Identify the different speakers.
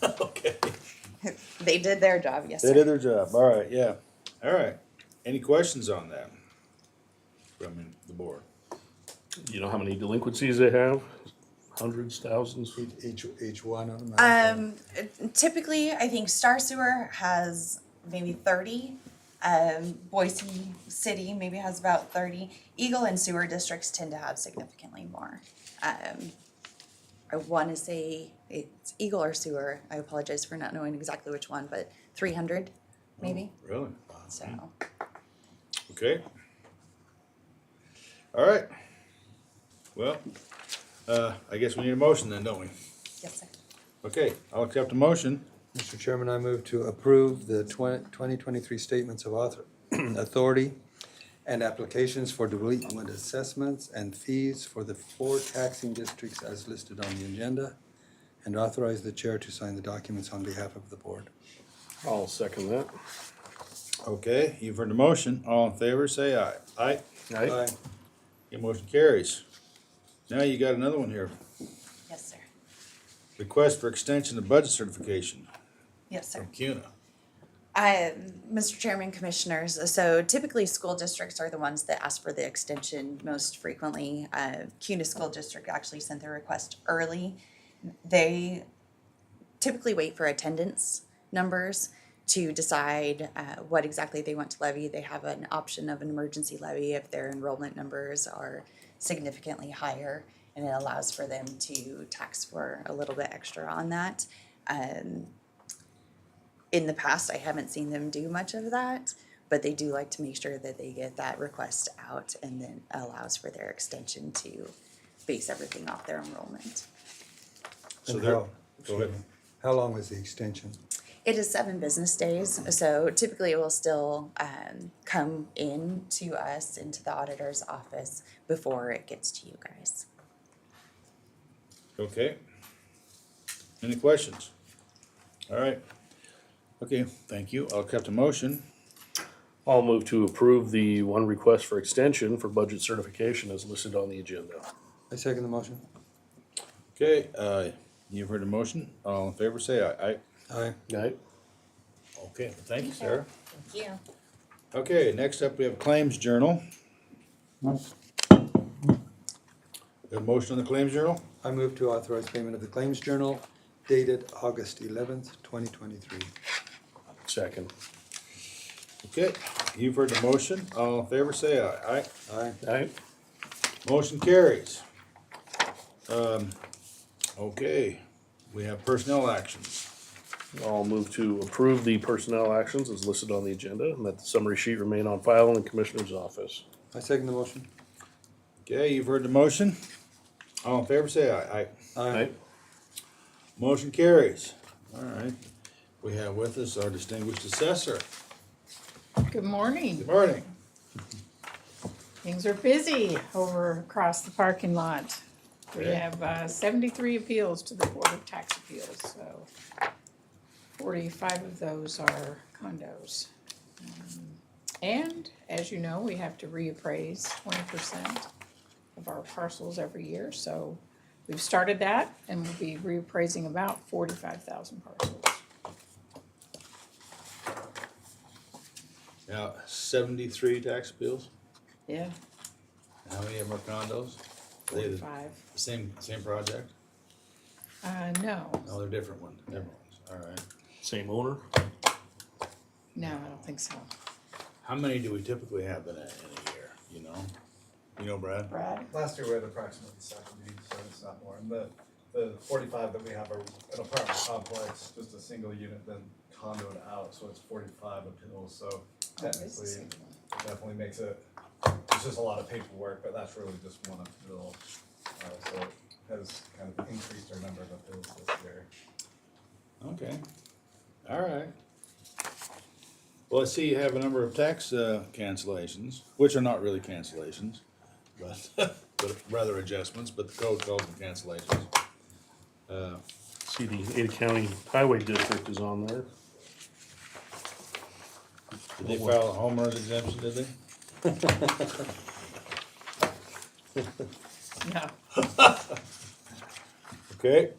Speaker 1: They did their job, yes,
Speaker 2: They
Speaker 1: sir.
Speaker 2: did their job, all right, yeah, all right. Any questions on that? From the board?
Speaker 3: You know how many delinquencies they have? Hundreds, thousands?
Speaker 4: Each, each one of them?
Speaker 1: Um, typically, I think Star Sewer has maybe thirty. Um, Boise City maybe has about thirty. Eagle and sewer districts tend to have significantly more. Um, I wanna say it's Eagle or sewer. I apologize for not knowing exactly which one, but three hundred maybe,
Speaker 2: Really?
Speaker 1: so.
Speaker 2: Okay. All right. Well, uh, I guess we need a motion then, don't we?
Speaker 1: Yes, sir.
Speaker 2: Okay, I'll accept a motion.
Speaker 4: Mr. Chairman, I move to approve the 20 2023 statements of author, authority and applications for delinquent assessments and fees for the four taxing districts as listed on the agenda, and authorize the chair to sign the documents on behalf of the board.
Speaker 3: I'll second that.
Speaker 2: Okay, you've heard the motion. All in favor, say aye. Aye.
Speaker 3: Aye.
Speaker 2: Your motion carries. Now you got another one here.
Speaker 1: Yes, sir.
Speaker 2: Request for extension of budget certification
Speaker 1: Yes, sir.
Speaker 2: from CUNA.
Speaker 1: Uh, Mr. Chairman, Commissioners, so typically school districts are the ones that ask for the extension most frequently. Uh, CUNA School District actually sent their request early. They typically wait for attendance numbers to decide uh, what exactly they want to levy. They have an option of an emergency levy if their enrollment numbers are significantly higher, and it allows for them to tax for a little bit extra on that. Um, in the past, I haven't seen them do much of that, but they do like to make sure that they get that request out and then allows for their extension to base everything off their enrollment.
Speaker 2: So
Speaker 4: And
Speaker 2: they're-
Speaker 4: how-
Speaker 2: Go ahead.
Speaker 4: How long was the extension?
Speaker 1: It is seven business days, so typically it will still um, come in to us into the auditor's office before it gets to you guys.
Speaker 2: Okay. Any questions? All right. Okay, thank you. I'll accept a motion.
Speaker 3: I'll move to approve the one request for extension for budget certification as listed on the agenda.
Speaker 4: I second the motion.
Speaker 2: Okay, uh, you've heard the motion. All in favor, say aye. Aye.
Speaker 4: Aye.
Speaker 3: Aye.
Speaker 2: Okay, thank you, Sarah.
Speaker 1: Thank you.
Speaker 2: Okay, next up, we have Claims Journal. Got a motion on the Claims Journal?
Speaker 4: I move to authorize payment of the claims journal dated August 11th, 2023.
Speaker 3: Second.
Speaker 2: Okay, you've heard the motion. All in favor, say aye. Aye.
Speaker 4: Aye.
Speaker 3: Aye.
Speaker 2: Motion carries. Um, okay, we have personnel actions.
Speaker 3: I'll move to approve the personnel actions as listed on the agenda and that the summary sheet remain on file in the commissioner's office.
Speaker 4: I second the motion.
Speaker 2: Okay, you've heard the motion. All in favor, say aye. Aye.
Speaker 3: Aye.
Speaker 2: Motion carries. All right. We have with us our distinguished assessor.
Speaker 5: Good morning.
Speaker 2: Good morning.
Speaker 5: Things are busy over across the parking lot. We
Speaker 2: Okay.
Speaker 5: have uh, seventy-three appeals to the Board of Tax Appeals, so forty-five of those are condos. Um, And as you know, we have to reappraise twenty percent of our parcels every year, so we've started that and we'll be reappraising about forty-five thousand parcels.
Speaker 2: Now, seventy-three tax bills.
Speaker 5: Yeah.
Speaker 2: How many of them are condos? They the
Speaker 5: Forty-five.
Speaker 2: Same, same project?
Speaker 5: Uh, no,
Speaker 2: No, they're different ones, different ones, all right.
Speaker 3: Same owner?
Speaker 5: no, I don't think so.
Speaker 2: How many do we typically have in a, in a year, you know? You know, Brad?
Speaker 5: Brad?
Speaker 6: Last year we had approximately seventy, so it's not more, and the, the forty-five that we have are an apartment complex, just a single unit, then condoed out, so it's forty-five appeals, so
Speaker 5: It's the
Speaker 6: technically,
Speaker 5: same
Speaker 6: it
Speaker 5: one.
Speaker 6: definitely makes it, it's just a lot of paperwork, but that's really just one appeal. Uh, so it has kind of increased our number of appeals this year.
Speaker 2: Okay, all right. Well, I see you have a number of tax, uh, cancellations, which are not really cancellations, but, but rather adjustments, but the code calls them cancellations. Uh,
Speaker 3: See, the Ada County Highway District is on there.
Speaker 2: did they file a homeowner's exemption, did they?
Speaker 5: No.
Speaker 2: Okay,